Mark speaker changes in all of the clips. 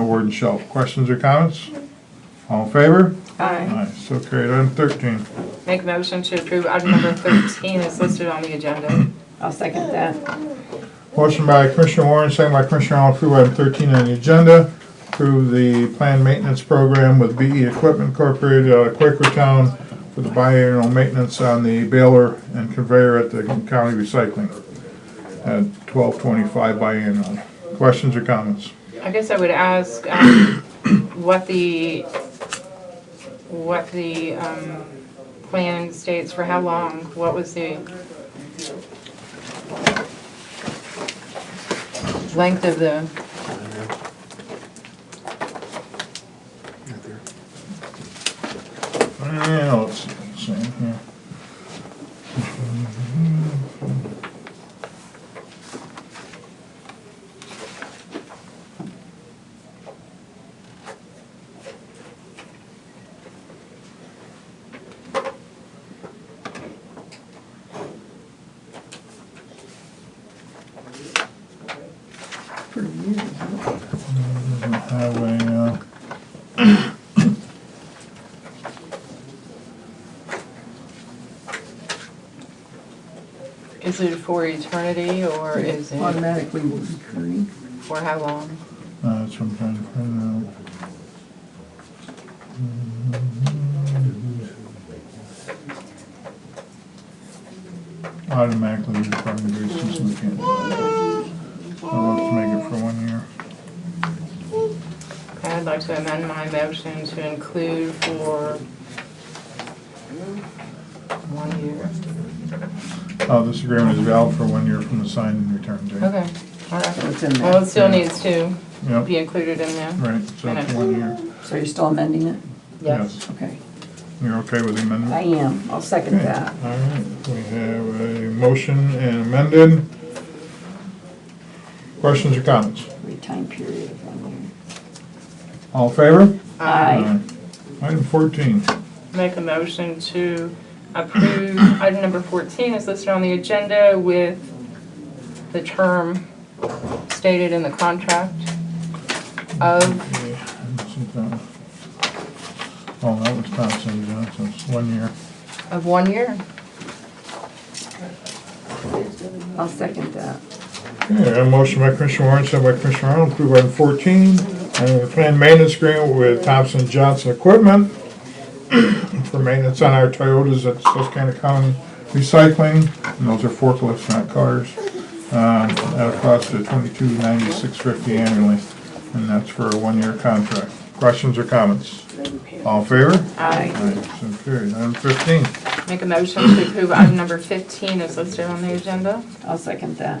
Speaker 1: board and shelf. Questions or comments? All in favor?
Speaker 2: Aye.
Speaker 1: Aye, so carried. Item thirteen.
Speaker 2: Make a motion to approve item number 13 is listed on the agenda.
Speaker 3: I'll second that.
Speaker 1: Motion by Commissioner Warren, second by Commissioner Arnold, approve item thirteen on the agenda. Approve the planned maintenance program with BE Equipment Incorporated out of Quakertown for the biannual maintenance on the baler and conveyor at the county recycling at twelve twenty-five biannual. Questions or comments?
Speaker 2: I guess I would ask um, what the, what the um, plan states for how long? What was the length of the,
Speaker 1: Yeah, let's see, let's see, yeah. Highway, uh,
Speaker 2: is it for eternity or is it
Speaker 4: automatically will be current.
Speaker 2: for how long?
Speaker 1: uh, that's what I'm trying to find out. Automatically, you're probably doing something we can't. do. I'll have to make it for one year.
Speaker 2: I'd like to amend my motion to include for one year.
Speaker 1: Oh, this agreement is valid for one year from the signed and return date.
Speaker 2: Okay, all right.
Speaker 4: It's in there.
Speaker 2: Well, it still needs to be
Speaker 1: Yep,
Speaker 2: included in there.
Speaker 1: right, so it's one year.
Speaker 4: So you're still amending it?
Speaker 1: Yes.
Speaker 4: Okay.
Speaker 1: You're okay with the amendment?
Speaker 4: I am. I'll second that.
Speaker 1: All right, we have a motion and amended. Questions or comments?
Speaker 4: Every time period of one year.
Speaker 1: All in favor?
Speaker 4: Aye.
Speaker 1: Item fourteen,
Speaker 2: Make a motion to approve item number 14 is listed on the agenda with the term stated in the contract of,
Speaker 1: okay, let's see if that one- oh, that was Thompson Johnson's, one year.
Speaker 2: of one year.
Speaker 4: I'll second that.
Speaker 1: Okay, I have a motion by Commissioner Warren, second by Commissioner Arnold, approve item fourteen, uh, planned maintenance agreement with Thompson Johnson Equipment for maintenance on our Toyotas at Susquehanna County Recycling, and those are forklifts, not cars, um, at a cost of twenty-two ninety-six fifty annually, and that's for a one-year contract. Questions or comments? All in favor?
Speaker 2: Aye.
Speaker 1: Aye, so carried. Item fifteen,
Speaker 2: Make a motion to approve item number 15 is listed on the agenda.
Speaker 4: I'll second that.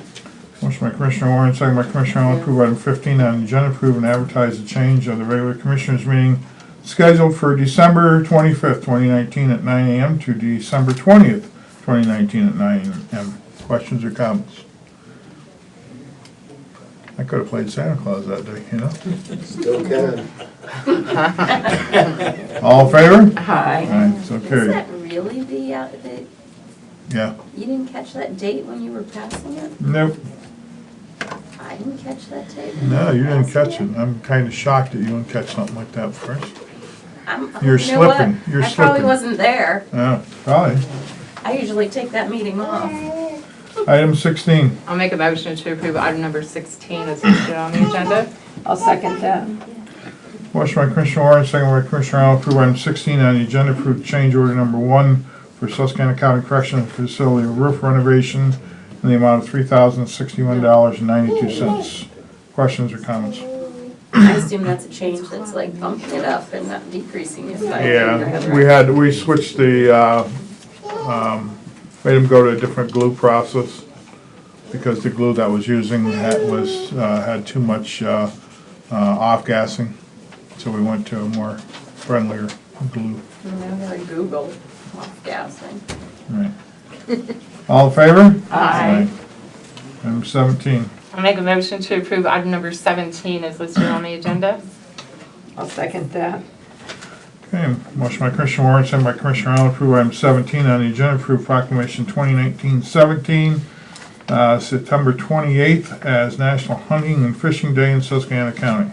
Speaker 1: Motion by Commissioner Warren, second by Commissioner Arnold, approve item fifteen on the agenda, approve and advertise the change of the regular commissioners meeting scheduled for December twenty-fifth, twenty nineteen at nine AM to December twentieth, twenty nineteen at nine AM. Questions or comments? I could have played Santa Claus that day, you know?
Speaker 5: Still can.
Speaker 1: All in favor?
Speaker 4: Aye.
Speaker 1: Aye, so
Speaker 6: Is
Speaker 1: carried.
Speaker 6: that really the, uh, the,
Speaker 1: Yeah,
Speaker 6: you didn't catch that date when you were passing it?
Speaker 1: nope,
Speaker 6: I didn't catch that date. when
Speaker 1: no,
Speaker 6: were
Speaker 1: you didn't
Speaker 6: passing
Speaker 1: catch it. I'm kinda shocked that you didn't catch something like that first.
Speaker 6: I'm-
Speaker 1: You're
Speaker 6: you know what?
Speaker 1: slipping. You're
Speaker 6: I probably
Speaker 1: slipping.
Speaker 6: wasn't there.
Speaker 1: Yeah, probably.
Speaker 6: I usually take that meeting off.
Speaker 1: Item sixteen.
Speaker 2: I'll make a motion to approve item number 16 is listed on the agenda.
Speaker 4: I'll second that.
Speaker 1: Motion by Commissioner Warren, second by Commissioner Arnold, approve item sixteen on the agenda, approve change order number one for Susquehanna County Correctional Facility roof renovation in the amount of three thousand sixty-one dollars and ninety-two cents. Questions or comments?
Speaker 6: I assume that's a change that's like bumping it up and not decreasing it. by-
Speaker 1: Yeah, we had, we switched the, uh, um, made them go to a different glue process because the glue that was using had, was, uh, had too much, uh, uh, off-gassing. So we went to a more friendlier glue.
Speaker 6: You know, like Google, off gassing.
Speaker 1: Right. All in favor?
Speaker 2: Aye.
Speaker 1: Item seventeen.
Speaker 2: I'll make a motion to approve item number 17 is listed on the agenda.
Speaker 4: I'll second that.
Speaker 1: Okay, motion by Commissioner Warren, sent by Commissioner Arnold, approve item seventeen on the agenda, approve proclamation 2019-17, uh, September twenty-eighth as National Hunting and Fishing Day in Susquehanna County.